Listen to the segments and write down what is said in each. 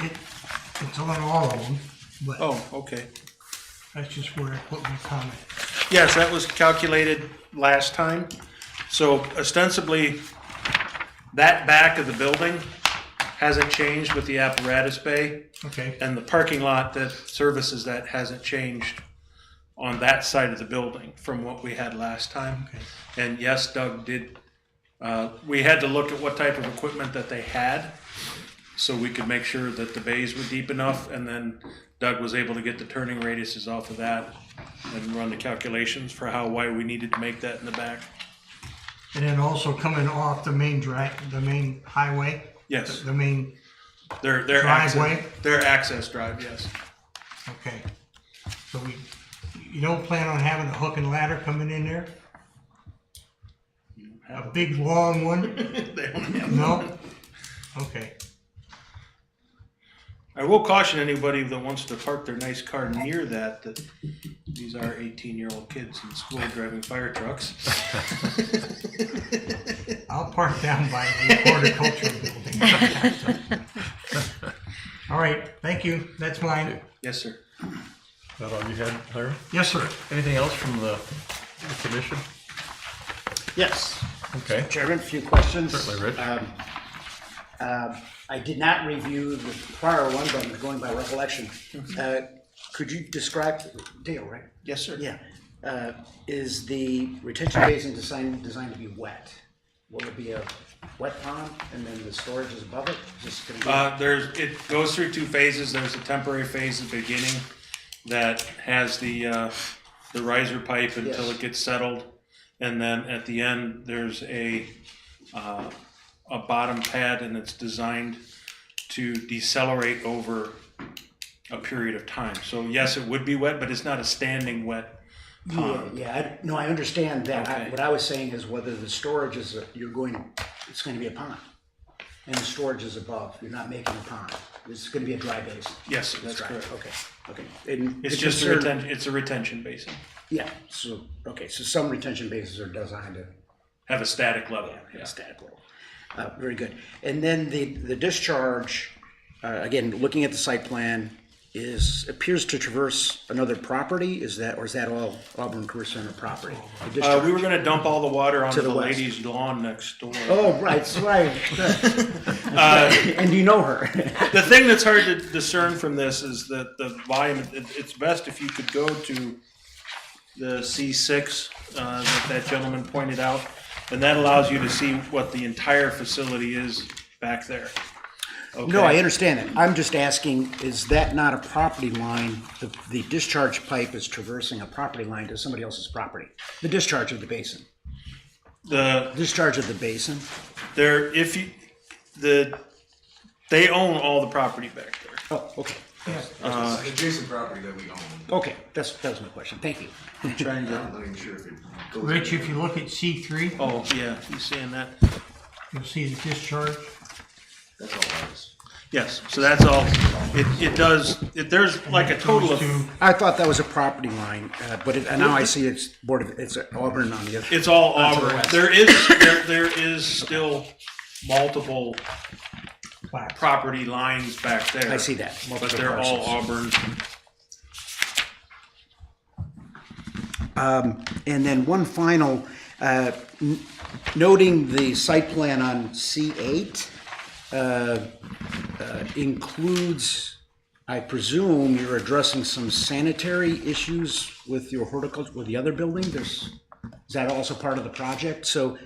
It, it's on all of them, but Oh, okay. that's just where I put my comment. Yes, that was calculated last time. So ostensibly, that back of the building hasn't changed with the apparatus bay, Okay, and the parking lot that services that hasn't changed on that side of the building from what we had last time. okay, And yes, Doug did, uh, we had to look at what type of equipment that they had, so we could make sure that the bays were deep enough, and then Doug was able to get the turning radiuses off of that and run the calculations for how, why we needed to make that in the back. and then also coming off the main drive, the main highway, Yes, the main, their, their access, Driveway? their access drive, yes. okay. So we, you don't plan on having a hook and ladder coming in there? A big long one? They don't have- No? Okay, I will caution anybody that wants to park their nice car near that, that these are eighteen-year-old kids in school driving fire trucks. I'll park down by the horticulture building. All right, thank you, that's mine. Yes, sir. That all you had, Larry? Yes, sir. Anything else from the the commission? Yes, Okay. Chairman, a few questions. Certainly, Rich. Um, uh, I did not review the prior one, but I'm going by recollection. Uh, Could you describe, Dale, right? Yes, sir. Yeah. Uh, Is the retention basin designed, designed to be wet? Will it be a wet pond and then the storage is above it? Just gonna be- Uh, there's, it goes through two phases. There's a temporary phase at the beginning that has the, uh, the riser pipe until Yes. it gets settled. And then at the end, there's a, uh, a bottom pad and it's designed to decelerate over a period of time. So yes, it would be wet, but it's not a standing wet pond. Yeah, I, no, I understand that. I- Okay. What I was saying is whether the storage is, a- you're going, it's gonna be a pond. And the storage is above, you're not making a pond. It's gonna be a dry basin. Yes, sir, It's that's dry, correct. Okay, okay. And It's the just a concern- retention, it's a retention basin. Yeah, so, okay, so some retention bases are designed to Have a static level. yeah, static level. Uh, very good. And then the, the discharge, uh, again, looking at the site plan, is, appears to traverse another property, is that, or is that all Auburn Career Center property? The Uh, discharge? we were gonna dump all the water onto the the west. lady's lawn next door. Oh, right, that's right. and you know her. The thing that's hard to discern from this is that the volume, it, it's best if you could go to the C6 uh, that that gentleman pointed out, and that allows you to see what the entire facility is back there. No, I understand that. I'm just asking, is that not a property line? The, the discharge pipe is traversing a property line to somebody else's property. The discharge of the basin. The, Discharge of the basin. there, if you, the, they own all the property back there. Oh, okay. Uh, It's an adjacent property that we own. Okay, that's, that was my question. Thank you. Trying to, I'm not even sure if it goes. Rich, if you look at C three, oh, yeah, you seeing that? you'll see the discharge. That's all it is. Yes, so that's all, it, it does, it, there's like a total Goes to- of, I thought that was a property line, uh, but it, and now I see it's board of, it's Auburn on the other. It's all to the Auburn. west. There is, there, there is still multiple Plaque. property lines back there. I see that. But multiple they're all parcels. Auburn. And then one final, uh, n- noting the site plan on C8 uh, uh, includes, I presume you're addressing some sanitary issues with your horticulture, with the other building? There's, is that also part of the project? So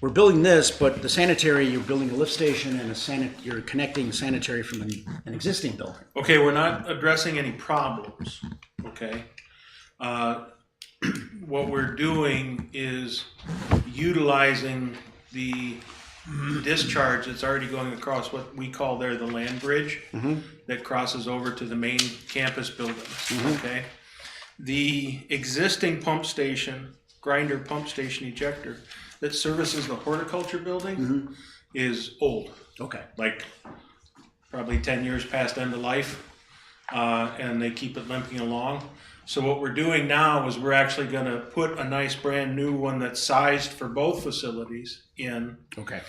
we're building this, but the sanitary, you're building a lift station and a sanit, you're connecting sanitary from an an existing building. Okay, we're not addressing any problems, okay? Uh, What we're doing is utilizing the discharge that's already going across what we call there the land bridge that crosses over to the main campus buildings, okay? The existing pump station, grinder pump station ejector that services the horticulture building is old Okay. like probably 10 years past end of life uh, and they keep it limping along so what we're doing now is we're actually going to put a nice brand new one that's sized for both facilities in Okay.